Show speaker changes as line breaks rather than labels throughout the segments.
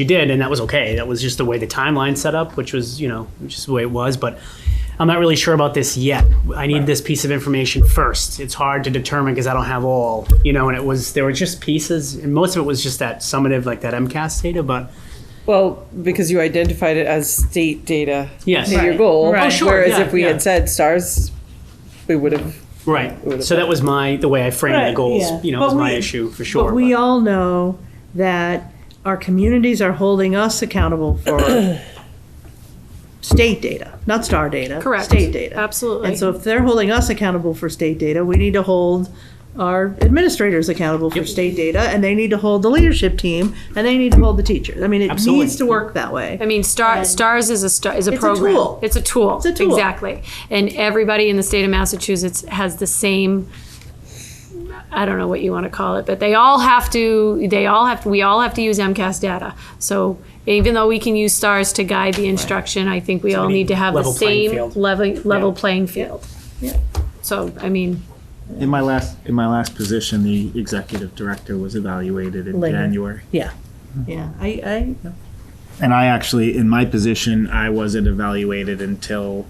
you did, and that was okay. That was just the way the timeline set up, which was, you know, just the way it was. But I'm not really sure about this yet. I need this piece of information first. It's hard to determine because I don't have all, you know. And it was there were just pieces, and most of it was just that summative, like that MCAS data. But
Well, because you identified it as state data
yes,
to your goal.
Right. Oh, sure,
Whereas
yeah,
if we
yeah.
had said stars, we would have.
right. So that was my the way I framed the
Right,
goals.
yeah.
You know,
But
was my
we-
issue for sure.
But we
but-
all know that our communities are holding us accountable for state data, not star data.
Correct.
State data.
Absolutely.
And so if they're holding us accountable for state data, we need to hold our administrators accountable for state data, and they need to hold the leadership team, and they need to hold the teachers. I mean, it
Absolutely.
needs to work that way.
I mean, star, STARS is a star, is a
It's a
program.
tool.
It's a tool.
It's a tool.
Exactly. And everybody in the state of Massachusetts has the same. I don't know what you want to call it, but they all have to. They all have. We all have to use MCAS data. So even though we can use stars to guide the instruction, I think we all
we need
need to have the
level playing
same
field.
level level
Yeah.
playing field. So I mean,
In my last, in my last position, the executive director was evaluated in
Later.
January.
Yeah. Yeah, I, I,
And I actually, in my position, I wasn't evaluated until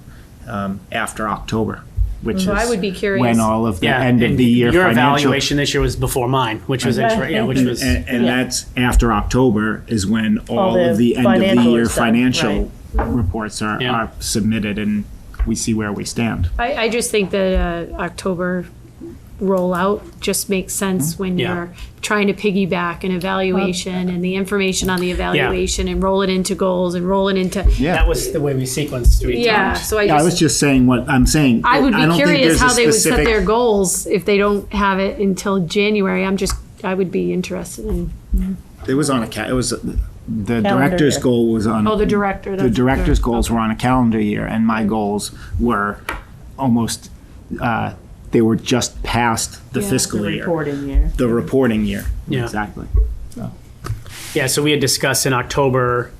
um, after October, which
So I
is
would be curious.
when all of the
yeah,
end of
and
the year
Your
financial.
evaluation this year was before mine, which was inter- yeah, which
And,
was
and- and that's after October is when all,
the
of the end of the
financial
year
stuff,
financial reports are,
Yeah.
are submitted and we see where we stand.
I, I just think that uh, October rollout just makes sense when
Yeah.
you're trying to piggyback an evaluation and the information on the evaluation and roll it into goals and roll it into
Yeah.
that was the way we sequenced three
yeah.
times.
So I
Yeah, I was
just.
just saying what I'm saying.
I would be
don't think
curious
there's a
how they would set
specific-
their goals if they don't have it until January. I'm just, I would be interested in.
It was on a ca- it was the director's
year.
goal was on
Oh, the director.
the director's goals were on a calendar year, and my goals were almost uh, they were just past the fiscal year,
reporting year.
the reporting year.
Yeah.
exactly.
Yeah, so we had discussed an October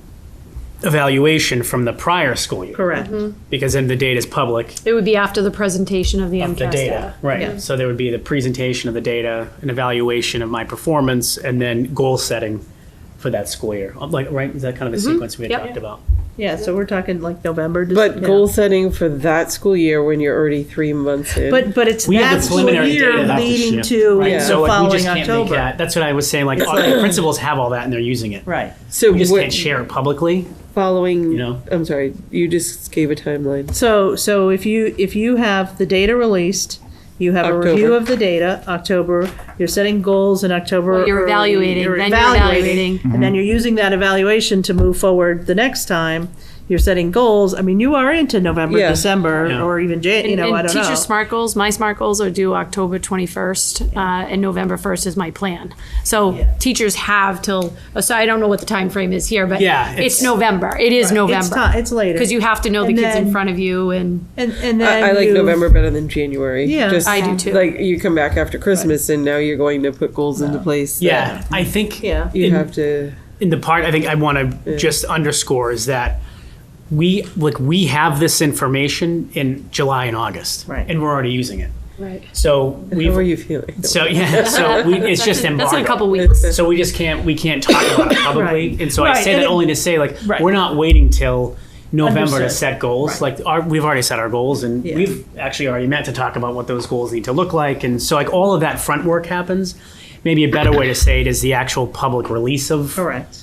evaluation from the prior school year
Correct.
Mm-hmm.
because then the data is public.
It would be after the presentation of the
of
MCAS
the data,
data.
right?
Yeah.
So there would be the presentation of the data, an evaluation of my performance, and then goal setting for that school year. Uh, Like, right? Is that kind of the sequence we had
Yep.
talked about?
Yeah, so we're talking like November. Dec-
But
yeah.
goal setting for that school year when you're already three months in.
But but it's
We have the
that school
preliminary
year
data that
has to
leading
shift,
to
Right.
the
So like, we
following
just can't make
October.
that. That's what I was saying. Like, all the principals have all that and they're using it.
Right.
so
We just
what-
can't share it publicly.
following.
you know?
I'm sorry, you just gave a timeline.
So so if you if you have the data released, you have
October.
a review of the data. October, you're setting goals in October.
Well, you're
or
evaluating, then you're evaluating.
and then you're using that evaluation to move forward the next time. You're setting goals. I mean, you are into November,
Yeah.
December,
Yeah.
or even Jan. You
And-
know,
and
I don't
teacher
know.
smart goals my smart goals are due october 21st uh, and november 1st is my plan so teachers have till so i don't know what the time frame is here but
Yeah,
it's,
it's-
november it is
It's
november
time. It's later
because you have to know the
And
kids in
then-
front of you and
and, and then
I, I like
you've-
November better than January.
Yeah.
just,
I do too.
Like you come back after Christmas and now you're going to put goals into place. that
Yeah, I think
Yeah.
you
in-
have to.
in the part I think I want to just underscore is that we like we have this information in July and August,
Right.
And we're already using it.
right
So
How are
we
you feeling?
so yeah, so we, it's just embargoed.
that's in a couple weeks
So we just can't we can't talk about it publicly.
Right.
And so I
Right,
say
and
that
it-
only to say like
Right.
we're not waiting till November to
Understood.
set goals. Like our, we've already set our goals, and
Yeah.
we've actually already met to talk about what those goals need to look like. And so like all of that front work happens. Maybe a better way to say it is the actual public release of
correct.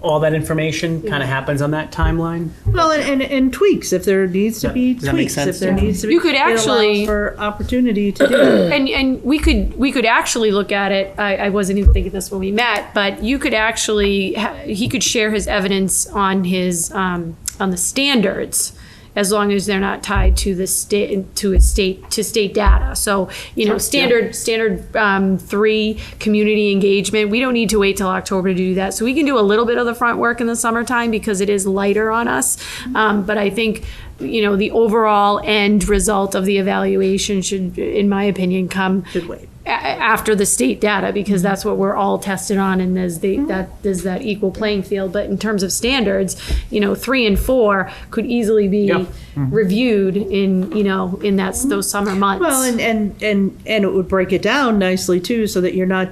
all that information kind of happens on that timeline.
Well, and, and, and tweaks if there needs to
Yeah.
be
Does that make
tweaks.
sense?
If there needs to be,
You could
it allows
actually-
for opportunity to do that.
and and we could we could actually look at it. I, I wasn't even thinking this when we met, but you could actually ha- he could share his evidence on his um, on the standards. As long as they're not tied to the state to a state to state data, so you know standard standard um, three community engagement. We don't need to wait till October to do that, so we can do a little bit of the front work in the summertime because it is lighter on us.
Mm-hmm.
Um, but I think you know the overall end result of the evaluation should in my opinion come
Should wait. Mm-hmm.
a- after the state data because that's what we're all tested on and there's the that there's that equal playing field but in terms of standards you know 3 and 4 could easily be
Yeah.
reviewed in you know in that those summer months
Mm-hmm. Well, and, and, and, and it would break it down nicely too, so that you're not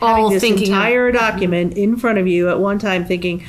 All
having this
thinking of-
entire document in front of you at one time thinking,